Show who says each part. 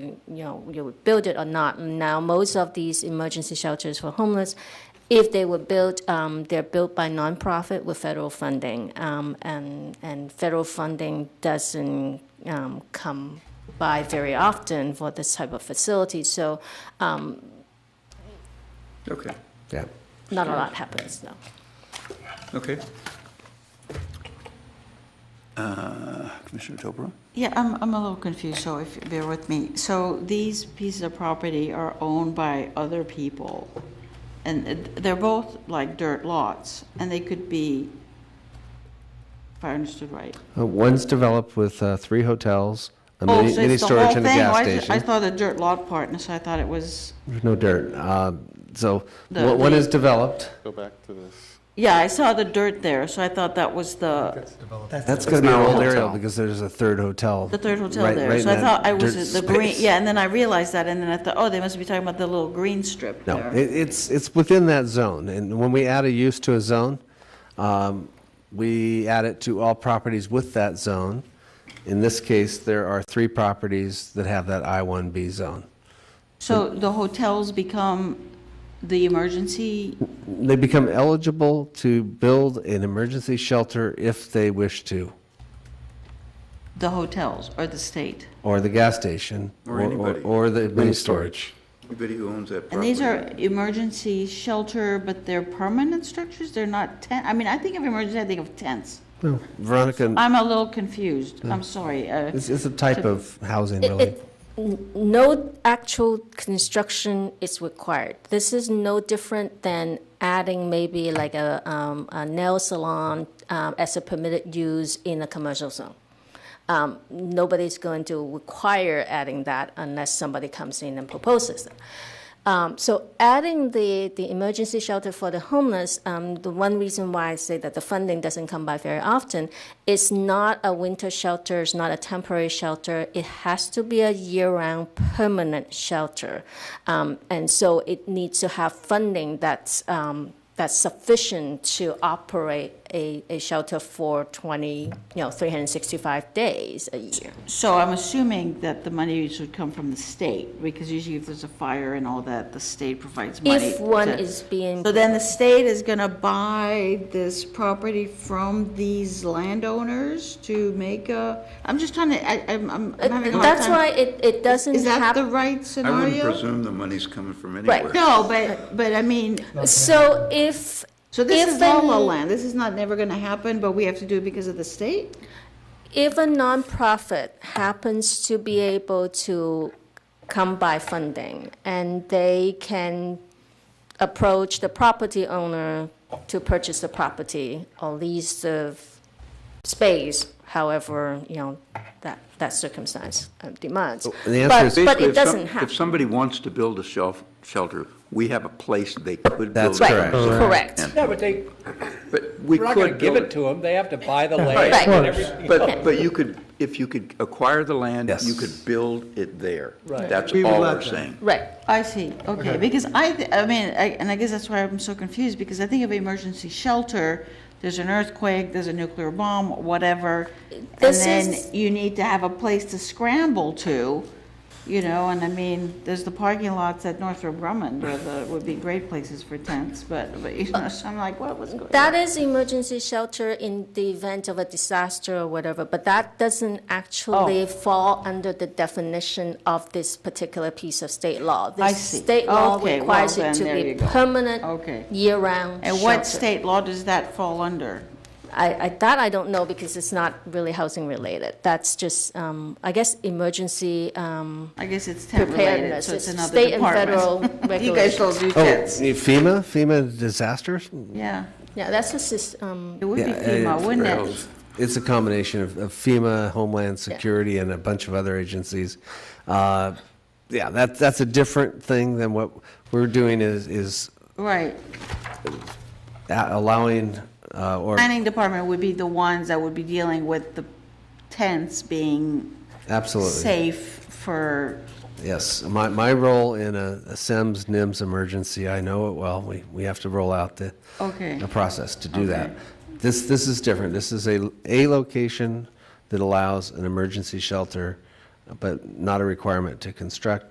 Speaker 1: you know, you would build it or not. Now, most of these emergency shelters for homeless, if they were built, um, they're built by nonprofit with federal funding, um, and and federal funding doesn't um, come by very often for this type of facility. So, um,
Speaker 2: Okay,
Speaker 3: Yeah.
Speaker 1: not a lot happens. No.
Speaker 2: okay. Uh, Commissioner Topra?
Speaker 4: Yeah, I'm, I'm a little confused, so if, you bear with me. So these pieces of property are owned by other people, and it- they're both like dirt lots, and they could be, if I understood right.
Speaker 3: Uh, One's developed with uh, three hotels, a
Speaker 4: Oh,
Speaker 3: mini
Speaker 4: so
Speaker 3: mini
Speaker 4: it's the whole
Speaker 3: storage and a
Speaker 4: thing?
Speaker 3: gas
Speaker 4: Why is it- I
Speaker 3: station.
Speaker 4: thought a dirt lot part, and so I thought it was,
Speaker 3: There's no dirt. Um, So
Speaker 4: The-
Speaker 3: one one
Speaker 4: the-
Speaker 3: is developed.
Speaker 5: Go back to this.
Speaker 4: yeah, I saw the dirt there, so I thought that was the,
Speaker 3: That's going to be our old aerial because there's a third hotel.
Speaker 4: the third hotel
Speaker 3: right-
Speaker 4: there.
Speaker 3: right in
Speaker 4: So I
Speaker 3: that
Speaker 4: thought I
Speaker 3: dirt
Speaker 4: was, the green,
Speaker 3: space.
Speaker 4: yeah, and then I realized that, and then I thought, oh, they must be talking about the little green strip
Speaker 3: No,
Speaker 4: there.
Speaker 3: it- it's, it's within that zone, and when we add a use to a zone, um, we add it to all properties with that zone. In this case, there are three properties that have that I-1B zone.
Speaker 4: So the hotels become the emergency
Speaker 3: They become eligible to build an emergency shelter if they wish to,
Speaker 4: The hotels or the state?
Speaker 3: or the gas station.
Speaker 2: Or anybody.
Speaker 3: Or the mini storage.
Speaker 2: Anybody who owns that property?
Speaker 4: And these are emergency shelter, but they're permanent structures? They're not tent, I mean, I think of emergency, I think of tents.
Speaker 3: No, Veronica,
Speaker 4: I'm a little confused, I'm sorry. uh,
Speaker 3: it's, it's a type of housing,
Speaker 1: It-
Speaker 3: really.
Speaker 1: it- n- No actual construction is required. This is no different than adding maybe like a, um, a nail salon um, as a permitted use in a commercial zone. Um, nobody's going to require adding that unless somebody comes in and proposes it. Um, so adding the, the emergency shelter for the homeless, um, the one reason why I say that the funding doesn't come by very often, it's not a winter shelter, it's not a temporary shelter. It has to be a year-round permanent shelter, um, and so it needs to have funding that's um, that's sufficient to operate a, a shelter for 20, you know, 365 days a year.
Speaker 4: So I'm assuming that the money would come from the state, because usually if there's a fire and all that, the state provides money.
Speaker 1: If one
Speaker 4: to-
Speaker 1: is being
Speaker 4: So then the state is gonna buy this property from these landowners to make a, I'm just trying to, I, I'm, I'm I'm having a hard time.
Speaker 1: That's why it, it doesn't
Speaker 4: Is that the
Speaker 1: happen.
Speaker 4: right
Speaker 2: I
Speaker 4: scenario?
Speaker 2: wouldn't presume the money's coming from anywhere.
Speaker 4: No, but, but I mean,
Speaker 1: So if
Speaker 4: so this
Speaker 1: if
Speaker 4: is La La
Speaker 1: an-
Speaker 4: Land, this is not never gonna happen, but we have to do it because of the state?
Speaker 1: if a nonprofit happens to be able to come by funding and they can approach the property owner to purchase the property or lease the space, however, you know, that, that circumstance uh, demands.
Speaker 3: the answer
Speaker 1: But-
Speaker 3: is-
Speaker 1: But
Speaker 2: Basically,
Speaker 1: it
Speaker 2: if some-
Speaker 1: doesn't happen.
Speaker 2: If somebody wants to build a shelf, shelter, we have a place they could build.
Speaker 3: That's
Speaker 2: it.
Speaker 1: Right, correct.
Speaker 6: Yeah, but they,
Speaker 2: But we
Speaker 6: we're not going to
Speaker 2: could
Speaker 6: give
Speaker 2: build
Speaker 6: it
Speaker 2: it.
Speaker 6: to them, they have to buy the land
Speaker 1: Right.
Speaker 6: and everything.
Speaker 2: But, but you could, if you could acquire the land, you
Speaker 3: Yes.
Speaker 2: could build it there.
Speaker 6: Right.
Speaker 2: That's
Speaker 7: We would
Speaker 2: all
Speaker 7: let
Speaker 2: we're
Speaker 7: them.
Speaker 2: saying.
Speaker 1: Right,
Speaker 4: I see, okay, because I, th- I mean, I- and I guess that's why I'm so confused, because I think of emergency shelter, there's an earthquake, there's a nuclear bomb, whatever, and
Speaker 1: This
Speaker 4: then
Speaker 1: is-
Speaker 4: you need to have a place to scramble to, you know, and I mean, there's the parking lots at Northrop Grumman, where the, would be great places for tents, but, but, you know, so I'm like, what was going on?
Speaker 1: That is emergency shelter in the event of a disaster or whatever, but that doesn't
Speaker 4: Oh.
Speaker 1: actually fall under the definition of this particular piece of state law.
Speaker 4: I
Speaker 1: This
Speaker 4: see.
Speaker 1: state law
Speaker 4: Okay, well,
Speaker 1: requires it
Speaker 4: then
Speaker 1: to
Speaker 4: there
Speaker 1: be
Speaker 4: you go.
Speaker 1: permanent,
Speaker 4: Okay.
Speaker 1: year-round
Speaker 4: And what
Speaker 1: shelter.
Speaker 4: state law does that fall under?
Speaker 1: I, I, that I don't know because it's not really housing related. That's just, um, I guess, emergency, um,
Speaker 4: I guess it's tent related,
Speaker 1: preparedness.
Speaker 4: so it's
Speaker 1: It's
Speaker 4: another
Speaker 1: State and federal
Speaker 4: department. You guys
Speaker 1: regulations.
Speaker 4: all do
Speaker 3: Oh,
Speaker 4: tents.
Speaker 3: FEMA, FEMA disasters?
Speaker 4: Yeah,
Speaker 1: Yeah, that's just, um,
Speaker 4: it would be
Speaker 3: Yeah,
Speaker 4: FEMA,
Speaker 3: it's
Speaker 4: wouldn't
Speaker 3: very-
Speaker 4: it?
Speaker 3: It's a combination of of FEMA, Homeland Security, and a bunch of other agencies. Uh, Yeah, that, that's a different thing than what we're doing is, is
Speaker 4: Right.
Speaker 3: a- allowing uh, or
Speaker 4: Planning department would be the ones that would be dealing with the tents being
Speaker 3: absolutely
Speaker 4: safe for,
Speaker 3: yes. My my role in a, a SEMS NIMS emergency, I know it well. We we have to roll out the
Speaker 4: Okay.
Speaker 3: a process to do that. This this is different. This is a a location that allows an emergency shelter but not a requirement to construct